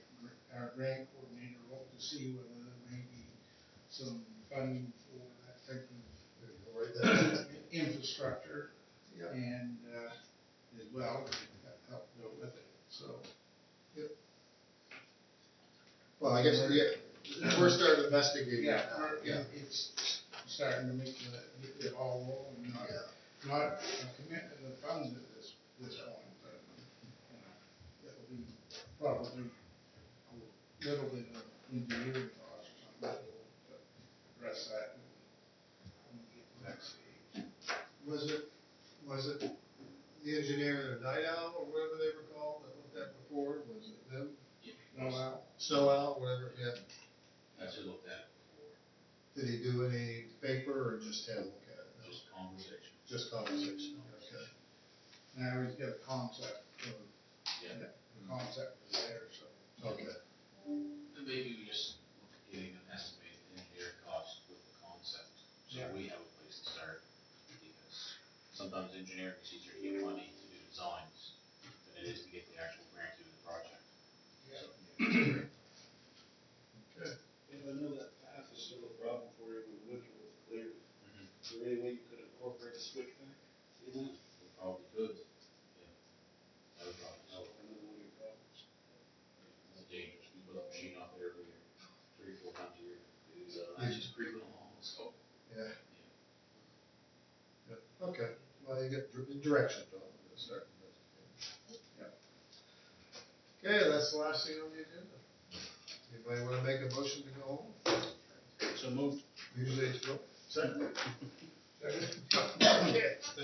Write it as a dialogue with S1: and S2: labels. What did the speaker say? S1: our grant coordinator look to see whether there may be some funding for that type
S2: There you go, right there.
S1: of infrastructure
S2: Yeah,
S1: and, uh, as well, that help go with it, so.
S2: well, I guess, yeah, we're starting investigating
S1: Yeah,
S2: that now,
S1: our-
S2: yeah.
S1: it- it's starting to make the, get the ball rolling, not,
S2: Yeah.
S1: not a commitment of funds at this, this point, but, you know, it'll be probably a little bit of engineering cost or something, but address that when we get to that stage.
S2: Was it, was it the engineer at Night Owl or whatever they were called that looked at before, was it them?
S1: No, Al?
S2: Snow Owl, whatever, yeah,
S3: That's who looked at it before,
S2: did he do any paper or just him look at it?
S3: just conversation.
S2: Just conversation, okay.
S1: now he's got a concept, of-
S3: Yeah,
S1: the concept is there, so.
S2: Okay,
S3: and maybe we just look at getting an estimated engineer cost with the concept, so
S1: Yeah.
S3: we have a place to start. Because sometimes engineering is easier to get money to do designs than it is to get the actual grant to do the project.
S2: okay.
S4: Yeah, I know that path is still a problem for you when winter was clear. Is there any way you could incorporate a switchback? See that?
S3: We Probably could, yeah. That would probably help,
S4: Another one of your problems.
S3: it's dangerous, we put a machine up there every year, three, four times a year. It's, uh, it's just creeping along, so.
S2: Yeah. Yeah, Okay, well, you get dir- direction, Tom, we're gonna start investigating. Okay, that's the last thing on the agenda. Anybody wanna make a motion to go home?
S3: So moved.
S2: Usually it's, no.
S1: Second?